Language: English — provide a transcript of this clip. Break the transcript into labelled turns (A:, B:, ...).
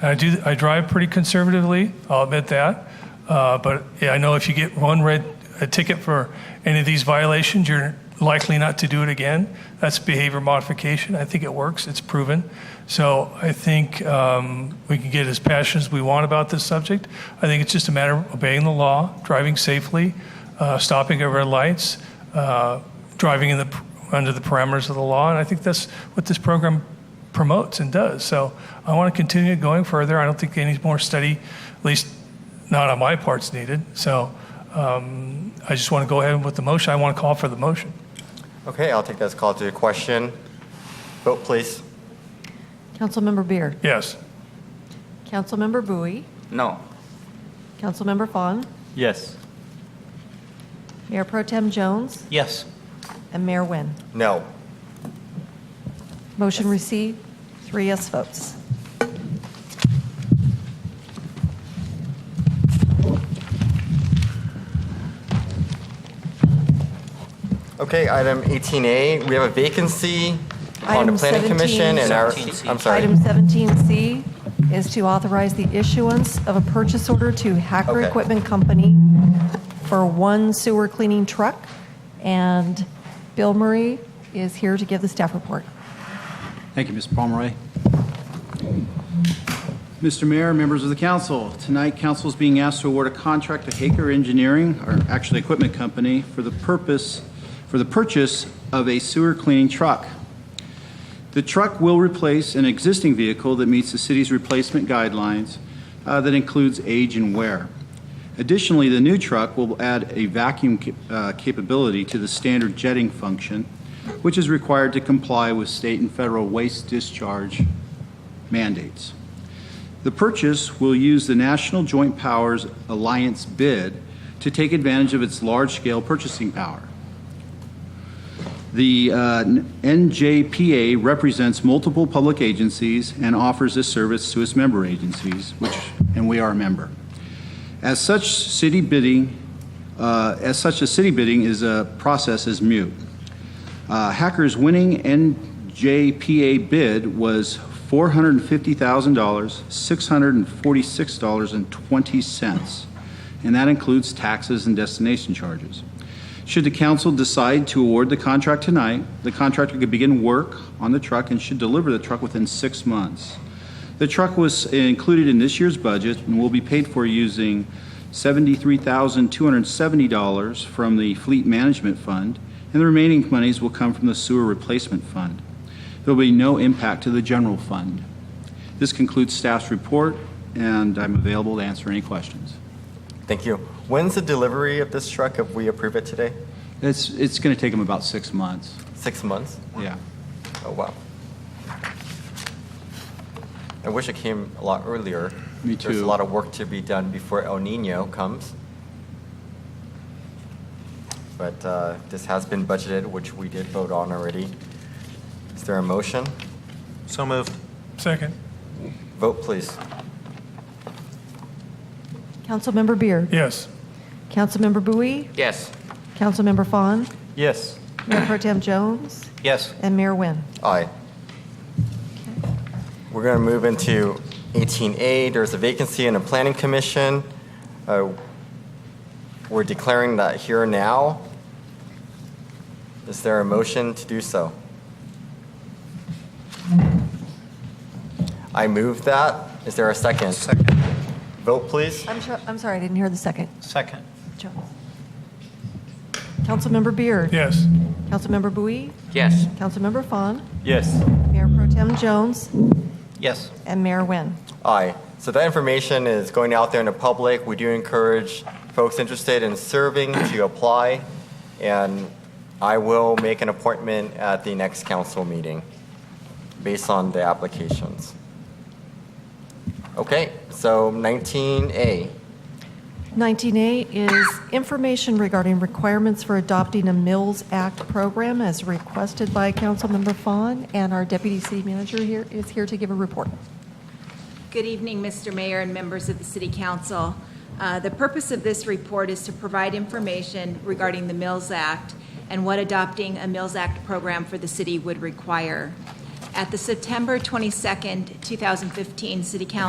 A: I do. I drive pretty conservatively. I'll admit that. Uh, but yeah, I know if you get one red a ticket for any of these violations, you're likely not to do it again. That's behavior modification. I think it works. It's proven. So I think um, we can get as passionate as we want about this subject. I think it's just a matter of obeying the law, driving safely, uh, stopping at red lights, uh, driving in the under the parameters of the law, and I think that's what this program promotes and does. So I want to continue going further. I don't think any more study, at least not on my part's needed. So um, I just want to go ahead with the motion. I want to call for the motion.
B: Okay, I'll take that as a call to a question. Vote, please.
C: Councilmember Beer.
A: Yes.
C: Councilmember Bowie.
B: No.
C: Councilmember Fawn.
D: Yes.
C: Mayor Pro Tem Jones.
D: Yes.
C: And Mayor Nguyen.
B: No.
C: Motion received, three yes votes.
B: Okay, item 18A, we have a vacancy on the
C: Item
B: Planning
C: 17.
B: Commission and our,
D: 17C.
B: I'm sorry.
C: Item 17C is to authorize the issuance of a purchase order to Hacker
B: Okay.
C: Equipment Company for one sewer cleaning truck, and Bill Murray is here to give the staff report.
E: Thank you, Ms. Pomeroy. Mr. Mayor, members of the council, tonight council is being asked to award a contract to Haker Engineering, or actually equipment company, for the purpose, for the purchase of a sewer cleaning truck. The truck will replace an existing vehicle that meets the city's replacement guidelines uh, that includes age and wear. Additionally, the new truck will add a vacuum ca- uh, capability to the standard jetting function, which is required to comply with state and federal waste discharge mandates. The purchase will use the National Joint Powers Alliance bid to take advantage of its large-scale purchasing power. The uh, NJPA represents multiple public agencies and offers this service to its member agencies, which, and we are a member. As such, city bidding, uh, as such, a city bidding is a process is mute. Uh, Hacker's winning NJPA bid was $450,000, $646.20, and that includes taxes and destination charges. Should the council decide to award the contract tonight, the contractor could begin work on the truck and should deliver the truck within six months. The truck was included in this year's budget and will be paid for using $73,270 from the Fleet Management Fund, and the remaining monies will come from the Sewer Replacement Fund. There will be no impact to the general fund. This concludes staff's report, and I'm available to answer any questions.
B: Thank you. When's the delivery of this truck if we approve it today?
E: It's, it's going to take them about six months.
B: Six months?
E: Yeah.
B: Oh, wow. I wish it came a lot earlier.
E: Me
B: There's a
E: too.
B: lot of work to be done before El Nino comes. But uh, this has been budgeted, which we did vote on already. Is there a motion?
D: So moved.
A: Second.
B: Vote, please.
C: Councilmember Beer.
A: Yes.
C: Councilmember Bowie.
D: Yes.
C: Councilmember Fawn.
D: Yes.
C: Mayor Pro Tem Jones.
D: Yes.
C: And Mayor Nguyen.
B: Aye. We're going to move into 18A. There's a vacancy in the Planning Commission. Uh, We're declaring that here now. Is there a motion to do so? I move that. Is there a second?
D: Second.
B: Vote, please.
C: I'm sure, I'm sorry, I didn't hear the second.
D: Second.
C: Jones. Councilmember Beard.
A: Yes.
C: Councilmember Bowie.
D: Yes.
C: Councilmember Fawn.
D: Yes.
C: Mayor Pro Tem Jones.
D: Yes.
C: And Mayor Nguyen.
B: Aye. So that information is going out there in the public. We do encourage folks interested in serving to apply, and I will make an appointment at the next council meeting based on the applications. Okay, so 19A.
C: 19A is information regarding requirements for adopting a Mills Act program as requested by Councilmember Fawn, and our deputy city manager here is here to give a report.
F: Good evening, Mr. Mayor and members of the City Council. Uh, The purpose of this report is to provide information regarding the Mills Act and what adopting a Mills Act program for the city would require. At the September 22nd, 2015 City Council